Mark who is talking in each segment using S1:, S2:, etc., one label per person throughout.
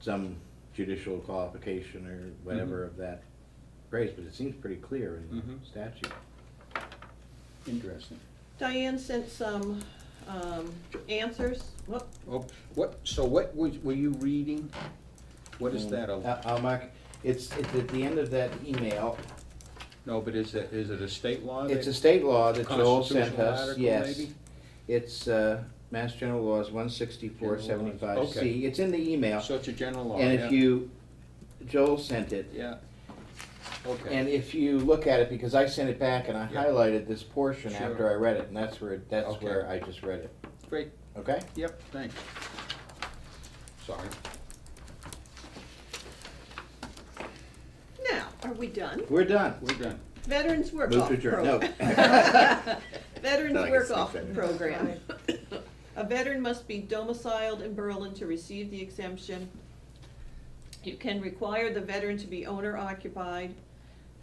S1: some judicial qualification or whatever
S2: Mm-hmm.
S1: of that grace, but it seems pretty clear in
S2: Mhm.
S1: the statute.
S2: Interesting.
S3: Diane sent some um, answers. Whoop.
S2: Oh, what, so what was, were you reading? What is that? a-
S1: Uh, uh, Mark, it's, it's at the end of that email,
S2: No, but is it, is it a state law?
S1: it's a
S2: that-
S1: state law that Joel sent
S2: Constitutional
S1: us,
S2: article,
S1: yes.
S2: maybe?
S1: It's, uh, Mass General Laws one sixty-four seventy-five
S2: Okay.
S1: C, it's in the email,
S2: So it's a general law,
S1: and if
S2: yeah.
S1: you, Joel sent it,
S2: Yeah. Okay.
S1: And if you look at it, because I sent it back and I
S2: Yeah.
S1: highlighted this portion
S2: Sure.
S1: after I read it, and that's where, that's
S2: Okay.
S1: where I just read it,
S2: Great,
S1: okay?
S2: yep, thanks. Sorry.
S3: Now, are we done?
S1: We're done.
S2: We're done.
S3: Veterans Work
S1: Move
S3: Off
S1: to adjourn, no.
S3: Program. Veterans
S1: Thought I could
S3: Work
S1: sneak
S3: Off
S1: that in.
S3: Program. A veteran must be domiciled in Berlin to receive the exemption. You can require the veteran to be owner occupied.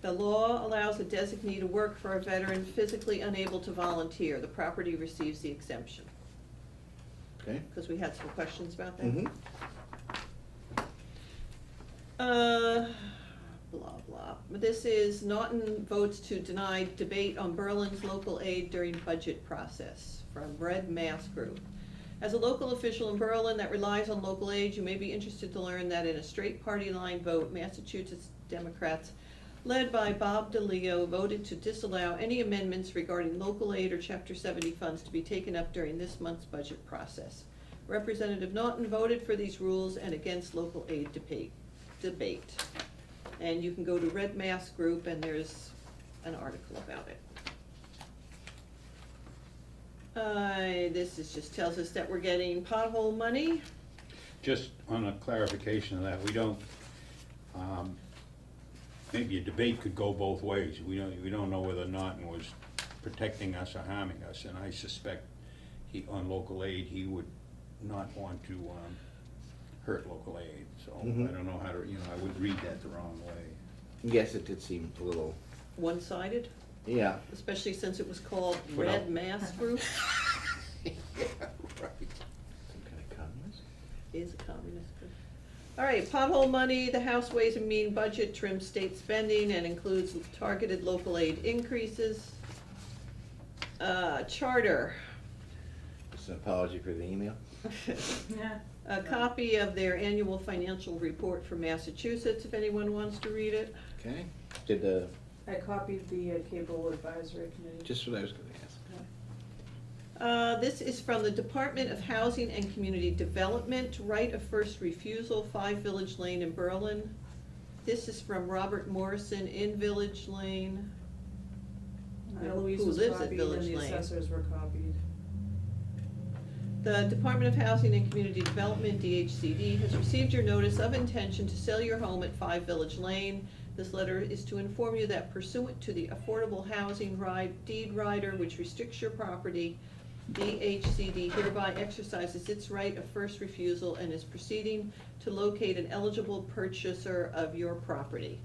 S3: The law allows a designee to work for a veteran physically unable to volunteer. The property receives the exemption,
S1: Okay.
S3: because we had some questions about that.
S1: Mhm.
S3: Uh, blah, blah. This is Naughton votes to deny debate on Berlin's local aid during budget process from Red Mass Group. As a local official in Berlin that relies on local aid, you may be interested to learn that in a straight party line vote, Massachusetts Democrats led by Bob DeLeo voted to disallow any amendments regarding local aid or chapter seventy funds to be taken up during this month's budget process. Representative Naughton voted for these rules and against local aid debate, debate. And you can go to Red Mass Group and there's an article about it. Uh, this is, just tells us that we're getting pothole money.
S4: Just on a clarification of that, we don't, um, maybe a debate could go both ways. We don't, we don't know whether Norton was protecting us or harming us, and I suspect he, on local aid, he would not want to, um, hurt local aid, so I
S1: Mhm.
S4: don't know how to, you know, I would read that the wrong way.
S1: Yes, it did seem a little,
S3: One-sided,
S1: yeah,
S3: especially since it was called
S4: Well-
S3: Red Mass Group,
S2: Yeah, right.
S1: some kind of communist.
S3: is a communist group. All right, pothole money, the House Ways and Mean budget trims state spending and includes targeted local aid increases. Uh, charter,
S1: Just an apology for the email.
S5: Yeah.
S3: a copy of their annual financial report for Massachusetts, if anyone wants to read it.
S1: Okay. Did the,
S5: I copied the uh, cable advisory committee.
S1: just what I was gonna ask.
S3: Uh, This is from the Department of Housing and Community Development, right of first refusal, Five Village Lane in Berlin. This is from Robert Morrison in Village Lane.
S5: Uh, Louise
S3: who
S5: was
S3: lives at
S5: copied and
S3: Village
S5: the
S3: Lane.
S5: assessors were copied.
S3: The Department of Housing and Community Development, DHCD, has received your notice of intention to sell your home at Five Village Lane. This letter is to inform you that pursuant to the Affordable Housing Ride Deed Rider, which restricts your property, DHCD hereby exercises its right of first refusal and is proceeding to locate an eligible purchaser of your property.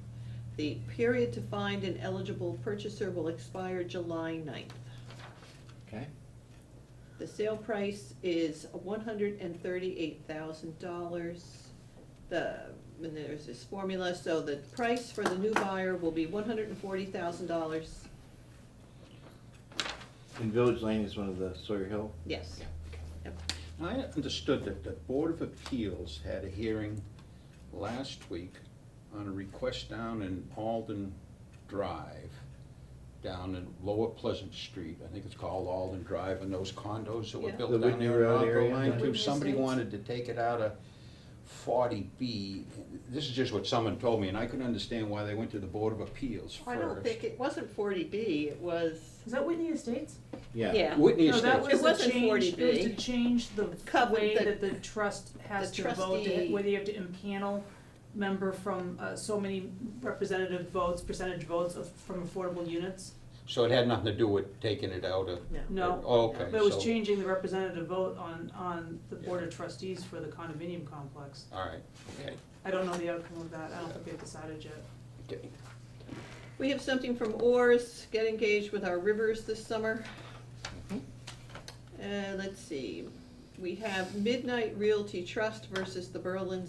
S3: The period to find an eligible purchaser will expire July 9th.
S1: Okay,
S3: The sale price is one hundred and thirty-eight thousand dollars. The, and there's this formula, so the price for the new buyer will be one hundred and forty thousand dollars,
S1: and Village Lane is one of the Sawyer Hill?
S3: yes.
S2: I understood that the Board of Appeals had a hearing last week on a request down in Alden Drive, down in Lower Pleasant Street, I think it's called Alden Drive, and those condos that were
S3: Yeah.
S1: The
S2: built down
S1: Whitney
S2: there
S1: Road
S2: on
S1: area.
S2: Rockland Line
S5: The
S2: too.
S5: Whitney
S2: Somebody
S5: Estates.
S2: wanted to take it out of forty B. This is just what someone told me, and I couldn't understand why they went to the Board of Appeals first.
S3: I don't think, it wasn't forty B, it was,
S5: Is that Whitney Estates?
S1: Yeah,
S2: Whitney
S5: No, that
S2: Estates.
S5: was
S3: It wasn't
S5: to change, it was
S3: 40B.
S5: to change the
S3: Cover-
S5: way
S3: the-
S5: that the trust has
S3: the
S5: to vote,
S3: trustee-
S5: it, whether you have to impanel member from uh, so many representative votes, percentage votes of, from affordable units.
S2: So it had nothing to do with taking it out of.
S3: no.
S5: No.
S2: Oh, okay,
S5: But it was
S2: so-
S5: changing the representative vote on, on the board
S2: Yeah.
S5: of trustees for the condominium complex.
S2: All right, okay,
S5: I don't know the outcome of that, I don't think they've decided yet.
S2: okay.
S3: We have something from Oars, get engaged with our rivers this summer. Uh, let's see, we have Midnight Realty Trust versus the Berlin